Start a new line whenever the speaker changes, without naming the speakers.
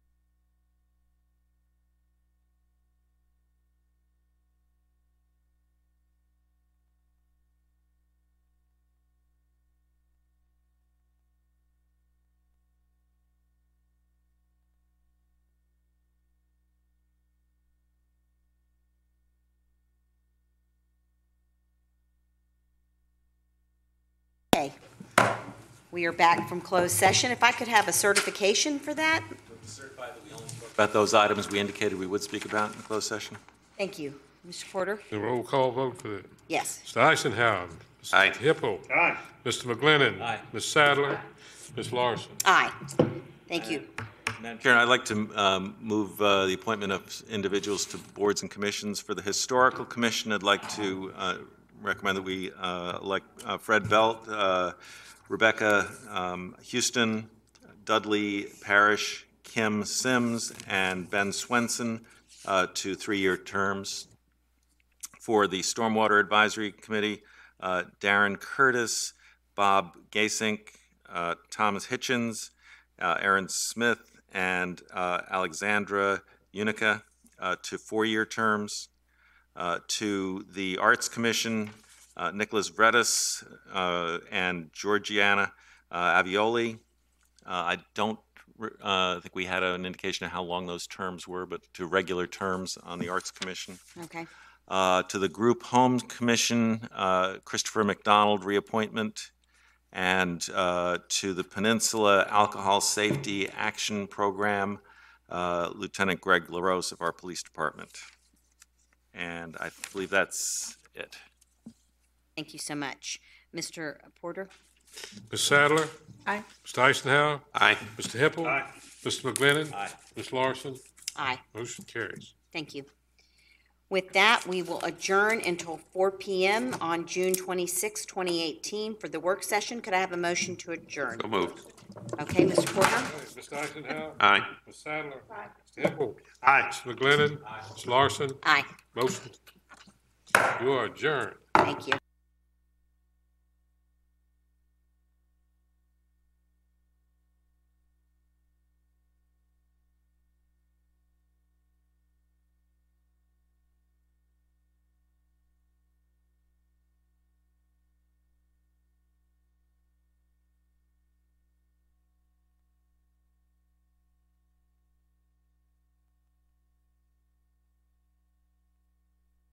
Okay. We are back from closed session. If I could have a certification for that?
Certify that we only spoke About those items we indicated we would speak about in closed session?
Thank you. Mr. Porter?
The roll call vote for that.
Yes.
Mr. Eisenhower. Mr.
Aye.
Hipple. Aye. Mr. McGlinnan.
Aye.
Ms. Sadler. Ms. Larson.
Aye. Thank you.
Madam Chair, I'd like to um, move uh, the appointment of individuals to boards and commissions. For the Historical Commission, I'd like to uh, recommend that we uh, elect uh, Fred Belt, uh, Rebecca um, Houston, Dudley Parrish, Kim Sims, and Ben Swenson uh, to three-year terms. For the Stormwater Advisory Committee, uh, Darren Curtis, Bob Gasink, uh, Thomas Hitchens, uh, Aaron Smith, and uh, Alexandra Unica uh, to four-year terms. Uh, To the Arts Commission, uh, Nicholas Vredes uh, and Georgiana uh, Avioli. Uh, I don't re- uh, think we had an indication of how long those terms were, but to regular terms on the Arts Commission.
Okay.
Uh, To the Group Home Commission, uh, Christopher McDonald, reappointment. And uh, to the Peninsula Alcohol Safety Action Program, uh, Lieutenant Greg LaRose of our Police Department. And I believe that's it.
Thank you so much. Mr. Porter?
Ms. Sadler.
Aye.
Mr. Eisenhower.
Aye.
Mr. Hipple. Aye. Mr. McGlinnan.
Aye.
Ms. Larson.
Aye.
Motion carries.
Thank you. With that, we will adjourn until 4 PM on June 26, 2018 for the work session. Could I have a motion to adjourn?
So moved.
Okay, Mr. Porter?
Mr. Eisenhower.
Aye.
Ms. Sadler. Aye. Mr. Hipple. Aye. Mr. McGlinnan. Aye. Ms. Larson.
Aye.
Motion. You are adjourned.
Thank you.